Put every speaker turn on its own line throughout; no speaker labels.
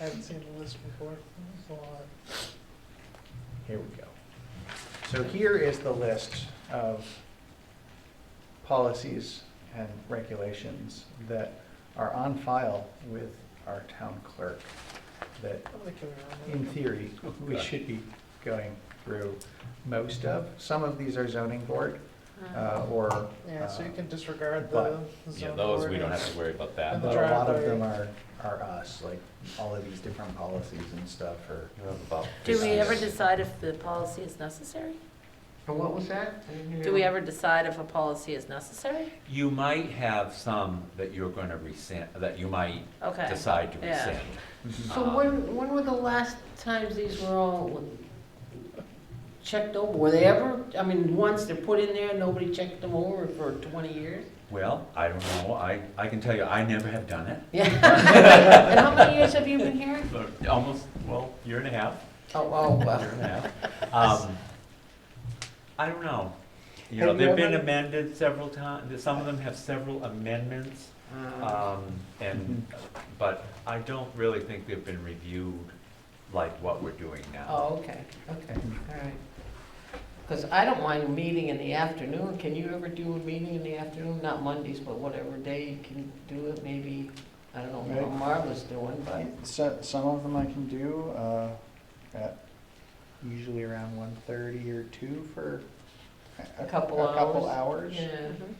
I haven't seen the list before, it's a lot.
Here we go. So here is the list of policies and regulations that are on file with our town clerk that
I'm gonna kill you
in
on
theory, we should be going through most of. Some of these are zoning board uh, or.
that. Yeah, so you
uh,
can disregard the
but-
Yeah,
zoning
those, we don't have
ordinance.
to worry about
And
that.
the
But a lot of
driveway.
them are, are us, like all of these different policies and stuff are.
You have about
Do we ever
56.
decide if the policy is necessary?
What was that?
Do we ever decide if a policy is necessary?
You might have some that you're gonna rescind, that you might
Okay.
decide to
Yeah.
rescind.
So
Um,
when, when were the last times these were all checked over? Were they ever, I mean, once they're put in there, nobody checked them over for twenty years?
Well, I don't know, I, I can tell you, I never have done it.
Yeah. And how many years have you been here?
But Almost, well, year and a half,
Oh, oh,
year
well.
and a half. Um, I don't know. You know,
Have you
they've been
ever-
amended several times, some of them have several amendments.
Uh,
Uh-huh.
Um, and,
Mm-hmm.
but I don't really think they've been reviewed like what we're doing now.
Oh, okay, okay, all right. Because I don't mind a meeting in the afternoon. Can you ever do a meeting in the afternoon? Not Mondays, but whatever day you can do it, maybe, I don't know what
Right.
Marla's doing, but.
So, some of them I can do, uh, at usually around one thirty or two for.
A couple
A couple hours.
hours. Yeah,
Mhm.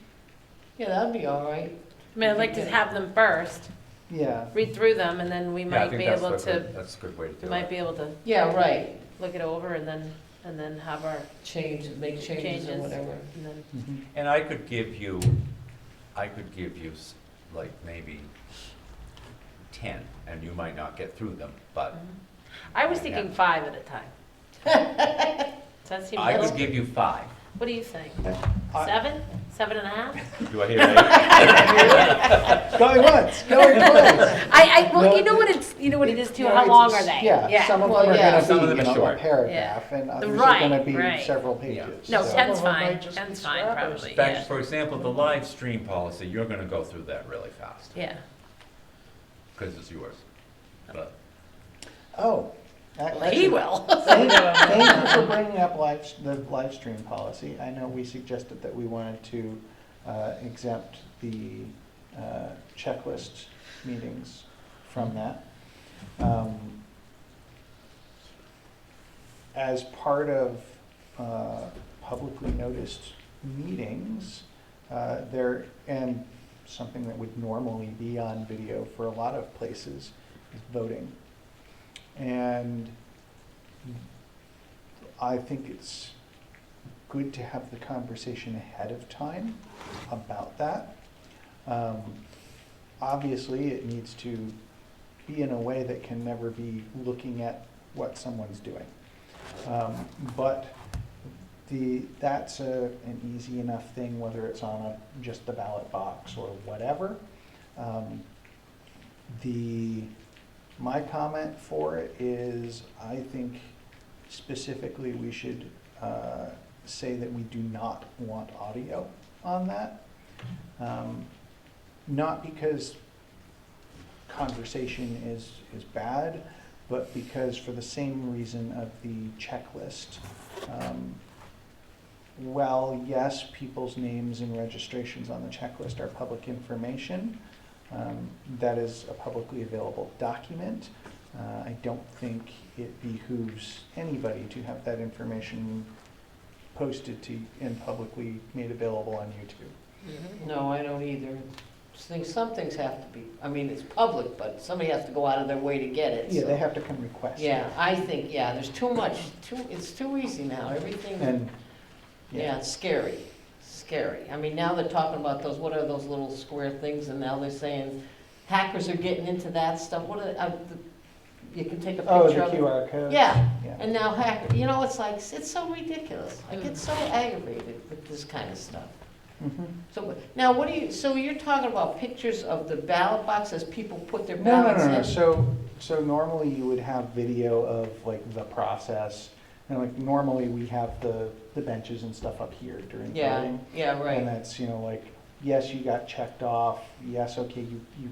yeah, that'd be all right.
I mean, I'd like to have them first,
Yeah,
read through them, and then we
Yeah, I
might
think
be
that's
able
a good-
to,
That's a good way to do
we
it.
might be able to
Yeah, right.
look it over and then, and then have our,
change, make changes or
Changes.
whatever.
and then,
mhm,
And I could give you, I could give you s- like maybe ten, and you might not get through them, but
I was thinking
Mm. Yeah.
five at a time. Does that seem
I could
little?
give you five.
What do you think?
I-
Seven? Seven and a half?
Do I hear right?
Going once, going twice.
I, I, well, you
No,
know what it's, you know what it is too,
No,
how
it's-
long are they?
Yeah, some of
well,
them are
yeah.
gonna
Some of
be,
them
you
are
know, a
short.
paragraph, and others are
Right,
gonna be
right.
several
Yeah.
pages.
No,
so-
ten-
ten's
Some of them might
fine,
just be
ten's fine,
scrappers.
probably,
Back-
yeah,
For example, the live stream policy, you're gonna go through that really fast,
yeah.
because it's yours. But
Oh. that-
Well, he will.
Thank thank you for bringing up live, the live stream policy. I know we suggested that we wanted to uh, exempt the uh, checklist meetings from that. Um, As part of uh, publicly noticed meetings, uh, there, and something that would normally be on video for a lot of places, is voting. And I think it's good to have the conversation ahead of time about that. Um, obviously, it needs to be in a way that can never be looking at what someone's doing. Um, but the, that's a, an easy enough thing, whether it's on a, just the ballot box or whatever. Um, the, my comment for it is, I think specifically, we should uh, say that we do not want audio on that. Um, Not because conversation is, is bad, but because for the same reason of the checklist. um, While, yes, people's names and registrations on the checklist are public information, um, that is a publicly available document. Uh, I don't think it behooves anybody to have that information posted to and publicly made available on YouTube.
No, I don't either. Just think Some things have to be, I mean, it's public, but somebody has to go out of their way to get it.
Yeah,
so-
they have to come request. it.
Yeah, I think, yeah, there's too much, too, it's too easy now, everything,
And,
yeah,
yeah,
it's scary, scary. I mean, now they're talking about those, what are those little square things, and now they're saying hackers are getting into that stuff, what are, uh, the- you can take a picture
oh,
of
the
it.
QR code.
Yeah,
Yeah.
And now hack, you know, it's like, it's so ridiculous. I get so aggravated with this kind of stuff.
Mhm.
So, now what do you, so you're talking about pictures of the ballot boxes, people put their
No, no,
ballots
no, no,
in?
so, so normally you would have video of like the process, and like normally we have the, the benches and stuff up here during voting.
Yeah, yeah,
And
right.
that's, you know, like, yes, you got checked off, yes, okay, you, you